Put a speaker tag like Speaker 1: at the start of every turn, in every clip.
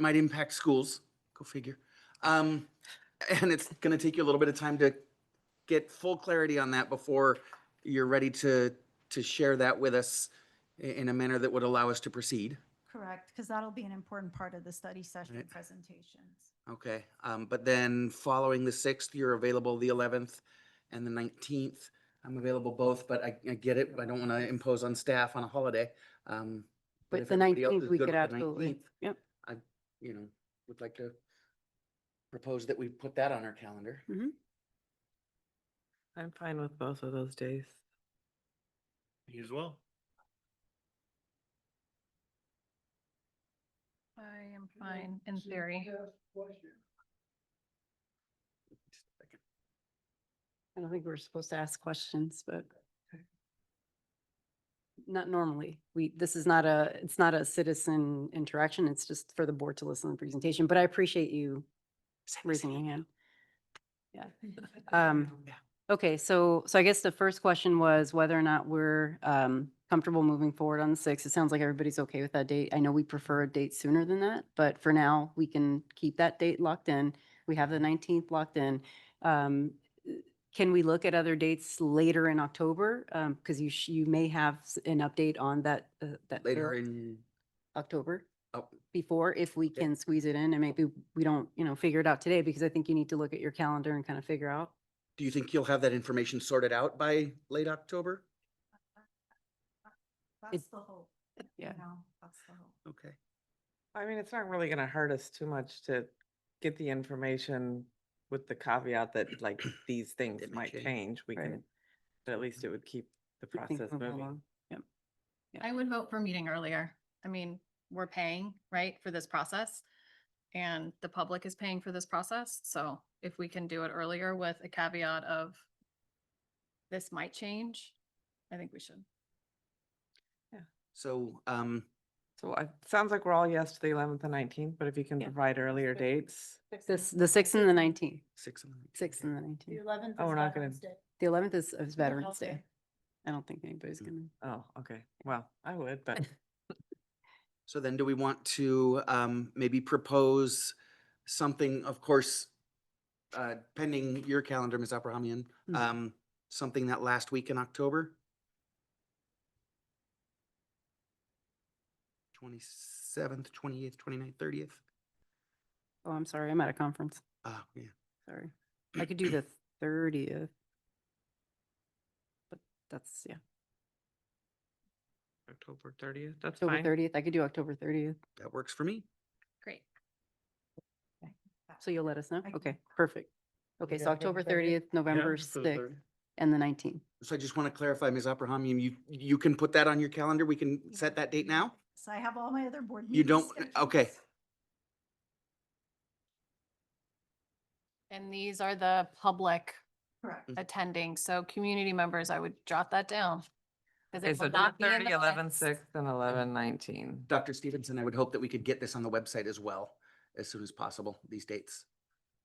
Speaker 1: might impact schools, go figure. Um, and it's going to take you a little bit of time to get full clarity on that before you're ready to, to share that with us i- in a manner that would allow us to proceed.
Speaker 2: Correct, because that'll be an important part of the study session
Speaker 1: Right.
Speaker 2: presentations.
Speaker 1: Okay, um, but then following the sixth, you're available the eleventh and the nineteenth. I'm available both, but I, I get it. I don't want to impose on staff on a holiday. Um,
Speaker 3: But
Speaker 1: if
Speaker 3: the
Speaker 1: everybody else
Speaker 3: 19th,
Speaker 1: is
Speaker 3: we
Speaker 1: good
Speaker 3: could
Speaker 1: with the
Speaker 3: absolutely,
Speaker 1: 19th,
Speaker 3: yep.
Speaker 1: you know, would like to propose that we put that on our calendar.
Speaker 4: I'm fine with both of those days.
Speaker 5: You as well.
Speaker 6: I am fine in theory.
Speaker 3: I don't think we're supposed to ask questions, but not normally. We, this is not a, it's not a citizen interaction. It's just for the board to listen to the presentation, but I appreciate you raising your hand. Yeah. Um, Okay, so, so I guess the first question was whether or not we're um, comfortable moving forward on the sixth. It sounds like everybody's okay with that date. I know we prefer a date sooner than that, but for now, we can keep that date locked in. We have the nineteenth locked in. Um, Can we look at other dates later in October? Because you, sh- you may have s- an update on that, uh, that.
Speaker 1: Later
Speaker 3: bill.
Speaker 1: in,
Speaker 3: October
Speaker 1: Oh.
Speaker 3: before, if we
Speaker 1: Okay.
Speaker 3: can squeeze it in and maybe we don't, you know, figure it out today because I think you need to look at your calendar and kind of figure out.
Speaker 1: do you think you'll have that information sorted out by late October?
Speaker 2: That's the hope. you
Speaker 3: yeah.
Speaker 2: know, That's the hope.
Speaker 1: Okay.
Speaker 4: I mean, it's not really gonna hurt us too much to get the information with the caveat that like these things
Speaker 1: It may
Speaker 4: might
Speaker 1: change.
Speaker 4: change. We
Speaker 3: Right.
Speaker 4: can, but at least it would keep the
Speaker 3: I think
Speaker 4: process
Speaker 3: we'll go
Speaker 4: moving.
Speaker 3: along. Yep. Yeah.
Speaker 6: I would vote for meeting earlier. I mean, we're paying, right, for this process. And the public is paying for this process. So if we can do it earlier with a caveat of this might change, I think we should.
Speaker 1: So, um,
Speaker 4: So I- it sounds like we're all yes to the eleventh and nineteenth, but if you can
Speaker 3: Yeah.
Speaker 4: provide earlier
Speaker 3: good.
Speaker 4: dates,
Speaker 3: This, the sixth and the nineteenth,
Speaker 1: six and. the-
Speaker 3: sixth
Speaker 1: okay.
Speaker 3: and the nineteenth.
Speaker 2: eleventh
Speaker 4: Oh, is we're not gonna- Veterans
Speaker 3: The eleventh is, is Veterans
Speaker 2: Okay.
Speaker 3: Day. I don't think anybody's gonna,
Speaker 4: oh, okay. Well, I would, but
Speaker 1: So then do we want to, um, maybe propose something, of course, uh, pending your calendar, Ms. Abrahamian,
Speaker 3: Mhm.
Speaker 1: um, something that last week in October? Twenty-seventh, twenty-eighth, twenty-ninth, thirtieth?
Speaker 3: oh, I'm sorry, I'm at a conference,
Speaker 1: Ah, yeah.
Speaker 3: sorry. I could do the thirtieth. But that's, yeah,
Speaker 4: October thirtieth, that's
Speaker 3: October
Speaker 4: fine.
Speaker 3: thirtieth, I could do October thirtieth,
Speaker 1: That works for me.
Speaker 6: Great.
Speaker 3: so you'll let us know?
Speaker 2: I can-
Speaker 3: Okay, perfect. Okay, so October thirtieth, November sixth, and the nineteenth.
Speaker 1: So I just want to clarify, Ms. Abrahamian, you, you can put that on your calendar? We can
Speaker 2: Yeah.
Speaker 1: set that date now?
Speaker 2: So I have all my other board
Speaker 1: You
Speaker 2: meetings.
Speaker 1: don't- okay.
Speaker 2: scheduled.
Speaker 6: And these are the public
Speaker 2: Correct.
Speaker 6: attending. So community members, I would jot that down. 'cause
Speaker 4: Okay,
Speaker 6: it
Speaker 4: so
Speaker 6: will not be in
Speaker 4: 30,
Speaker 6: the
Speaker 4: 11,
Speaker 6: minutes.
Speaker 4: 6th, and eleven nineteen.
Speaker 1: Dr. Stevenson, I would hope that we could get this on the website as well as soon as possible, these dates.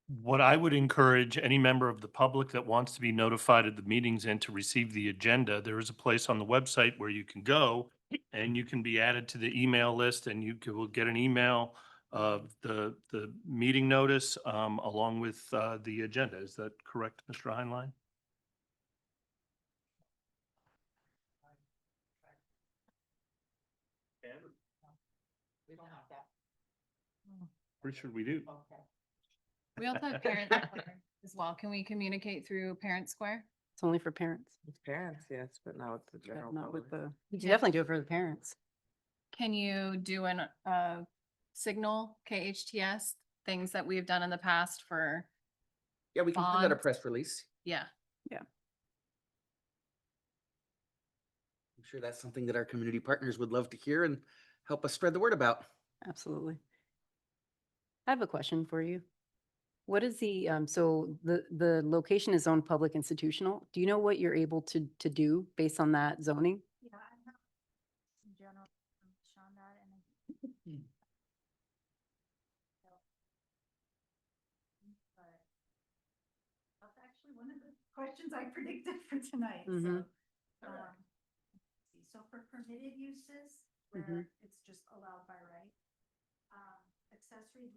Speaker 5: What I would encourage any member of the public that wants to be notified of the meetings and to receive the agenda, there is a place on the website where you can go and you can be added to the email list and you c- will get an email of the, the meeting notice um, along with uh, the agenda. Is that correct, Mr. Heinlein?
Speaker 3: We don't have that. Oh.
Speaker 5: Pretty sure we do.
Speaker 6: We also have parents Square as well. Can we communicate through Parent Square?
Speaker 3: It's only for parents,
Speaker 4: Parents, yes, but not with the
Speaker 3: but
Speaker 4: general
Speaker 3: not with
Speaker 4: public.
Speaker 3: the, you can
Speaker 6: Yeah.
Speaker 3: definitely do it for the parents.
Speaker 6: Can you do an, uh, signal KHTS, things that we've done in the past for,
Speaker 1: Yeah, we can send out a
Speaker 6: Bond.
Speaker 1: press release.
Speaker 6: yeah.
Speaker 1: I'm sure that's something that our community partners would love to hear and help us spread the word about.
Speaker 3: Absolutely. I have a question for you. What is the, um, so the, the location is zoned public institutional. Do you know what you're able to, to do based on that zoning?
Speaker 2: Yeah, I'm not in general, Sean, that and. I- But That's actually one of the questions I predicted for tonight, so.
Speaker 3: Mhm.
Speaker 2: um, let's see. So for permitted uses,
Speaker 3: Mhm.
Speaker 2: where it's just allowed by right. um, Accessory accessory